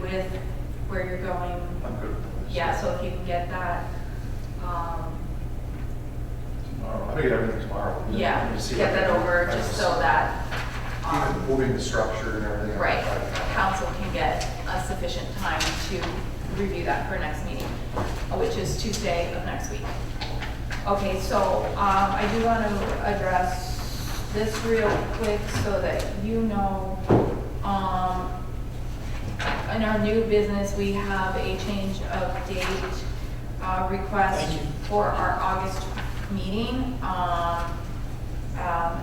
with where you're going. I'm good with this. Yeah, so if you can get that, um, Tomorrow, I think everything tomorrow. and then yeah, we'll see get what- that over I just so that, Even um, moving the structure and everything. right, council can get a sufficient time to review that for next meeting, uh, which is Tuesday of next week. Okay, so, um, I do want to address this real quick so that you know, um, in our new business, we have a change of date uh, request for our August meeting, um, um,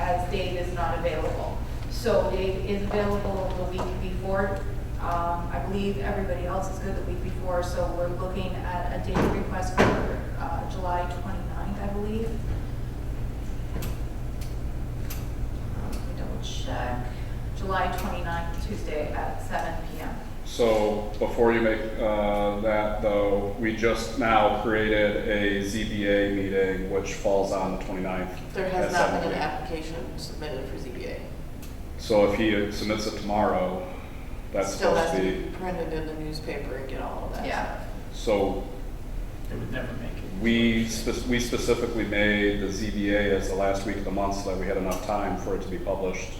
as Dave is not available. So Dave is available the week before. Um, I believe everybody else is good the week before, so we're looking at a date request for uh, July 29th, I believe. Let me Double check. July 29th, Tuesday at seven PM. So before you make uh, that though, we just now created a ZBA meeting which falls on the 29th. There has at not 7 been an p.m. application submitted for ZBA. So if he submits it tomorrow, that's Still supposed has to to be, be printed in the newspaper and get all of that. Yeah. so It would never make it. we, spec- we specifically made the ZBA as the last week of the month so that we had enough time for it to be published.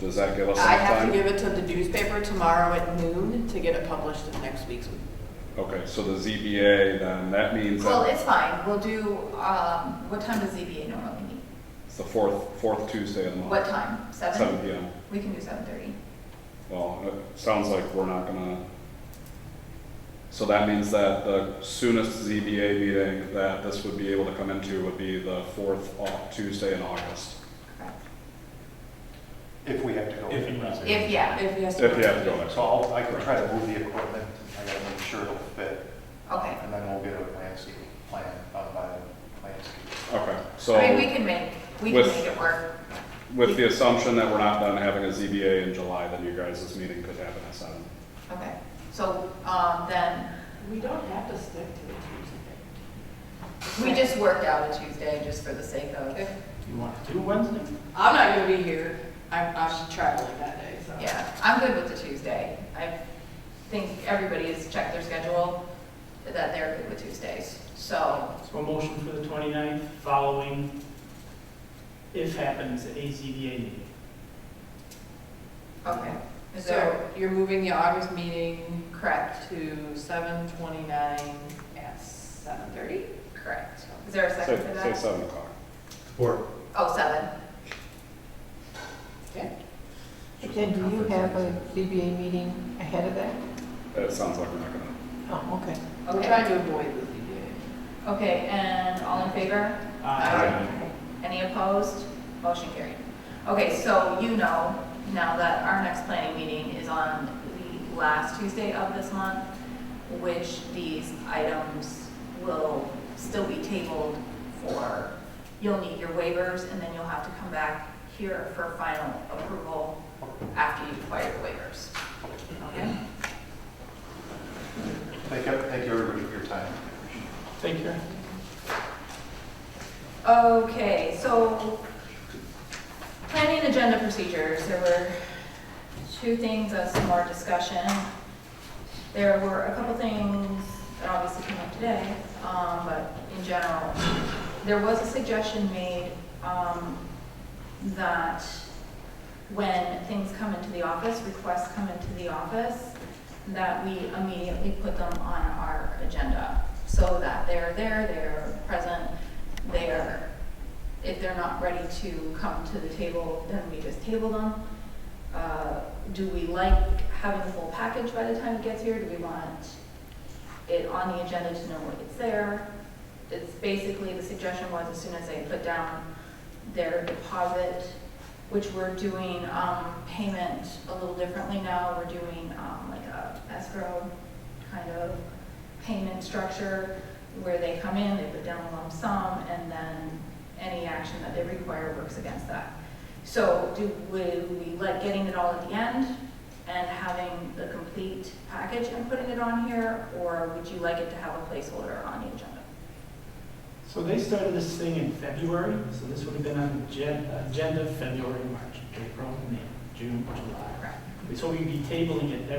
Does that give us enough I time? have to give it to the newspaper tomorrow at noon to get it published in next week's. Okay, so the ZBA then, that means Well, that it's fine. We'll do, um, what time does ZBA normally meet? it's the fourth, fourth Tuesday of the month. What time? Seven? Seven PM. We can do seven thirty. Well, it sounds like we're not gonna, so that means that the soonest ZBA meeting that this would be able to come into would be the fourth au- Tuesday in August. Correct. If we have to go. If you want. If, yeah, If he has to. If you have to go next. So I'll, I can try to move the equipment, I gotta make sure it'll fit, okay. and then we'll get a landscape plan, done by the landscape. Okay, I mean, we so can make, we can With- make it work. with the assumption that we're not done having a ZBA in July, then your guys' meeting could happen at seven. Okay. So, um, then, We don't have to stick to the Tuesday. we just worked out a Tuesday just for the sake of, If- You want to do Wednesday? I'm not gonna be here. I'm, I'm traveling that day, so. yeah. I'm good with the Tuesday. I think everybody has checked their schedule, that they're good with Tuesdays. So, So a motion for the 29th, following, if happens, a ZBA meeting. okay. Is there, So you're moving the August meeting correct, to seven twenty-nine at seven thirty? correct. Is there a second for Say, say that? seven o'clock. Or. Oh, seven. Okay. But then do you have a CBA meeting ahead of that? It sounds like we're not gonna, Oh, okay. We're Okay. trying to avoid the ZBA. Okay, and all in favor? Aye. Any opposed? Motion carried. Okay, so you know now that our next planning meeting is on the last Tuesday of this month, which these items will still be tabled for, you'll need your waivers, and then you'll have to come back here for final approval after you acquire the waivers. Okay? Thank you, thank you everybody for your time. Take care. Okay, so planning agenda procedures, there were two things of some more discussion. There were a couple things that obviously came up today, um, but in general, there was a suggestion made, um, that when things come into the office, requests come into the office, that we immediately put them on our agenda, so that they're there, they're present, they're, if they're not ready to come to the table, then we just table them. Uh, Do we like having the full package by the time it gets here? Do we want it on the agenda to know it's there? It's basically, the suggestion was as soon as they put down their deposit, which we're doing um, payment a little differently now. We're doing um, like a escrow kind of payment structure where they come in, they put down a lump sum, and then any action that they require works against that. So do we, we like getting it all at the end and having the complete package and putting it on here? Or would you like it to have a placeholder on the agenda? So they started this thing in February, so this would have been on the gen- agenda February, March, April, May, June, July. Correct. So we'd be tabling it